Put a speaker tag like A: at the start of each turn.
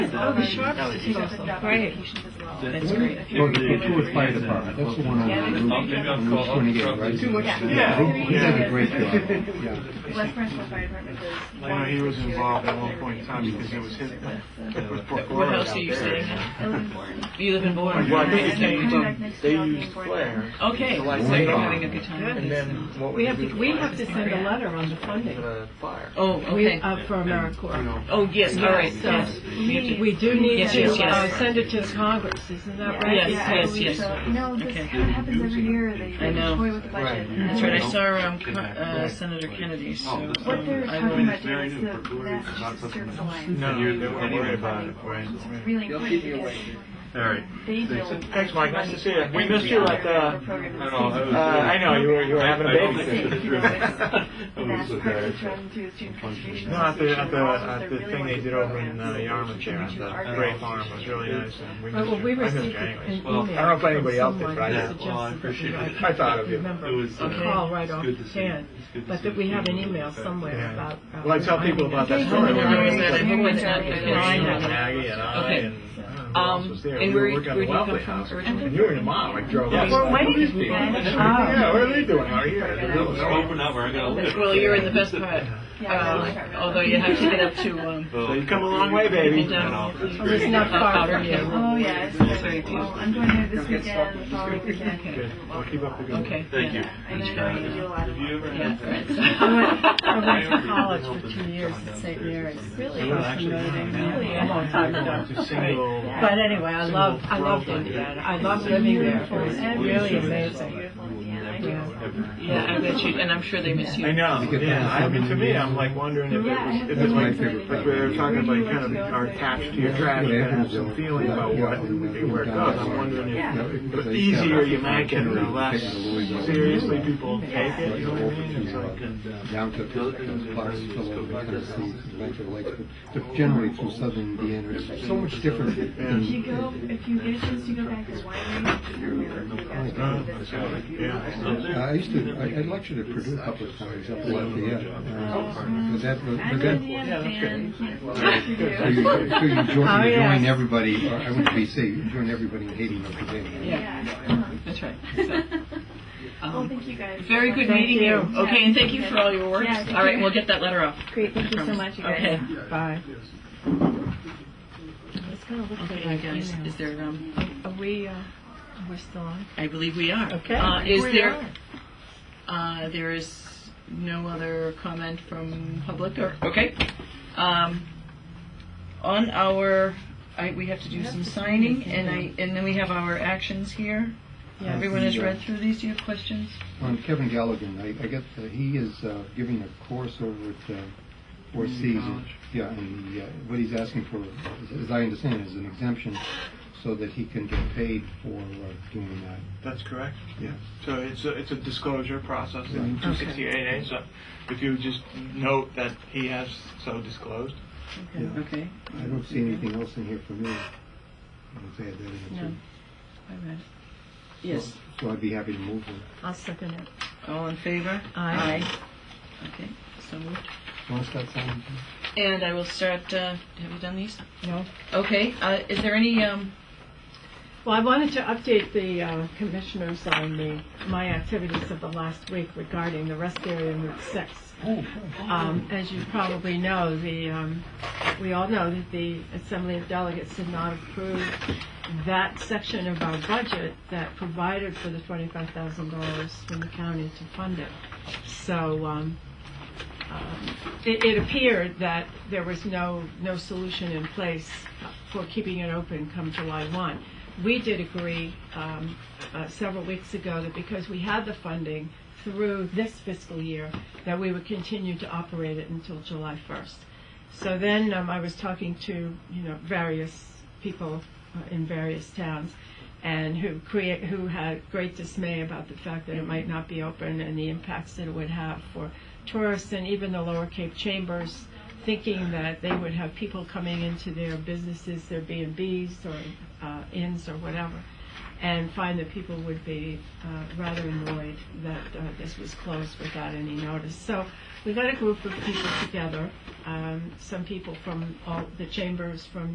A: Oh, the Schwab Institute also. Right.
B: That's great.
C: Well, the Kitswood Fire Department, that's the one on
A: Yeah,
C: the
A: they-
C: roof.
A: they-
C: on the roof when you get right?
D: Too much-
A: Yeah.
C: They- They did
A: Yeah.
C: a great job, yeah.
A: West Branchville Fire Department does.
D: I know he was involved at one point in time because he was hit with Brook
B: What
D: Lawrence
B: house
D: out
B: are you
D: there.
B: staying at?
A: Illinois.
B: You live in Bourne?
D: Yeah, I think
B: Okay,
D: it's named,
B: you do.
E: They used Flair.
B: Okay, so
E: July
B: you're
E: 2nd.
B: having a good time.
E: And then what
F: We
E: we
F: have
E: do
F: to, we have to send a
B: Yeah.
F: letter on the funding.
E: The fire.
B: Oh,
F: We,
B: okay.
F: uh, for
D: You
F: AmeriCorps.
D: know,
B: Oh, yes, all right,
F: So,
B: yes. We have to-
F: We do need
B: Yes,
F: to,
B: yes, yes.
F: uh, send it to Congress, isn't that right?
A: Yeah,
B: Yes, yes,
A: I believe
B: yes.
A: so. You know, this
B: Okay.
A: kind of happens every year. They
B: I
A: they
B: know.
A: toy with the budget. and
B: That's right, I
A: then
B: saw um, Car- uh, Senator Kennedy, so
E: Oh,
B: um,
A: What they're
B: I
A: talking
B: will.
A: about doing is the Massachusetts Service Alliance.
D: No,
A: They-
D: they weren't worried about it, right?
A: It's really important because
G: All right.
A: they build.
E: Thanks, Mike. Nice to see you. We missed you at the. Uh, I know you were you were having a babysit.
A: That's partly run through the student contribution.
E: No, at the at the, at
A: They're
E: the
A: really
E: thing they
A: wonderful
E: did over in uh,
A: programs.
E: Yarmouth there at the Gray Farm was really nice. And we
F: Right,
E: missed
F: well, we
E: you. I missed
F: received
E: you
F: an
E: anyways.
F: an
G: Well,
F: email
G: I
E: don't know if anybody else did,
F: from
E: but
F: someone that
G: Well, I
E: I did.
F: suggested
G: appreciate
F: that we
G: it.
F: might
E: I thought of you.
F: remember
G: It was, uh,
F: a call right
G: it's
F: off
G: good
F: the
G: to see you.
F: hand,
G: It's good to
F: but
G: see
F: that we
G: you.
F: have an email somewhere
E: Yeah.
F: about. uh,
E: Well, I tell people about that story.
F: Yeah.
E: when I
B: Where
E: was
B: is that?
E: at-
B: Who was that?
E: Yeah,
B: I
E: you
B: know.
E: and Maggie and I
B: Okay.
E: and I don't know who else
B: Um,
E: was there.
B: and
E: we
B: where,
E: were
B: you-
E: working on
B: where do you
E: the
B: come
E: Wellesley
B: from
E: House.
B: originally?
E: And you and your mom, like, drove
G: Yeah.
E: up.
G: We're
F: waiting for
B: Ah.
E: Yeah, what are they doing out here?
B: Well, you're in the best part, uh, although you have to get up to, um,
E: So you've come a long way, baby.
B: down.
F: It's not far
B: Outer
F: from
B: Hill.
F: here.
A: Oh, yeah. it's
B: Very
A: great.
B: close.
A: Well, I'm going there this weekend, the following weekend.
E: Good. Well, keep up the good work.
B: Okay.
G: Thank you.
A: And then I'm going to do a lot of.
B: Yeah, right.
F: I went, I went to college for two years at St. Mary's.
B: Really?
F: Across from Notre Dame. Really, a long time ago.
E: Single.
F: But anyway, I love, I loved Indiana. I loved living there. It was really amazing.
A: Beautiful Indiana. I know.
B: Yeah, I bet you, and I'm sure they miss you.
E: I know. Yeah. I mean, to me, I'm like wondering if
A: Yeah, I
E: it's,
A: have
E: if
A: no
E: it's like,
A: idea.
E: like we were talking about, you kind of are attached to your trash and have some feeling about what where it goes. I'm wondering if the easier you make it, the less seriously people take it. You know what I mean? It's like,
C: Down to Pittsburgh, parts of the Tennessee, Metro Lakes, but but generally through southern Indiana, it's so much different
A: If you
C: than
A: go, if you get a chance to go back to the winery.
E: yeah.
C: Uh, I used to, I I lectured at Purdue a couple of times up in Lafayette. uh, But that, but
A: I'm an
C: that,
A: Indiana fan, can't
C: so you,
A: wait
C: so you join,
F: Oh,
C: you
F: yes.
C: join everybody, or I went to BC, you join everybody in hating Notre Dame.
B: That's right.
A: to
B: So,
A: do. Well,
B: um,
A: Oh, thank you guys.
B: Very good
A: Thank
B: meeting you.
A: you.
B: Okay, and thank you for all your work.
A: Yeah, thank
B: All right,
A: you.
B: we'll get that letter off.
A: Great, thank you so much, you guys.
B: Okay.
F: Bye.
B: Okay, guys, is there, um,
F: Are we, uh, we're still on?
B: I believe we are.
F: Okay.
B: Uh, is
F: We
B: there,
F: are.
B: uh, there is no other comment from public or, okay. Um, on our, I, we have to do some signing and I, and then we have our actions here.
F: Yes.
B: Everyone has read through these. Do you have questions?
C: On Kevin Galligan, I, I guess uh, he is uh, giving a course over at uh, Four Seas. Yeah, and he, uh, what he's asking for, as- as I understand, it, is an exemption so that he can get paid for uh, doing that.
E: That's correct.
C: Yeah.
E: So it's a, it's a disclosure process in
C: Right.
E: 268A. So if you just note that he has so disclosed.
C: Yeah.
B: Okay.
C: I don't see anything else in here for me. I don't think I did it.
B: No. I read. it. Yes.
C: So I'd be happy to move on.
F: I'll second it.
B: All in favor?
F: Aye.
B: Aye. Okay, so moved.
C: Want to start signing?
B: And I will start, uh, have you done these?
F: No.
B: Okay, uh, is there any, um,
F: Well, I wanted to update the uh, commissioners on the, my activities of the last week regarding the rest area in Route 6. Um, As you probably know, the, um, we all know that the Assembly of Delegates did not approve that section of our budget that provided for the $25,000 from the county to fund it. So um, um, it it appeared that there was no, no solution in place for keeping it open come July 1 we did agree um, uh, several weeks ago that because we had the funding through this fiscal year, that we would continue to operate it until July 1st. So then um, I was talking to, you know, various people uh, in various towns and who create, who had great dismay about the fact that it might not be open and the impacts that it would have for tourists and even the Lower Cape Chambers, thinking that they would have people coming into their businesses, their B and Bs or uh, inns or whatever, and find that people would be uh, rather annoyed that uh, this was closed without any notice. So we got a group of people together, um, some people from all the chambers from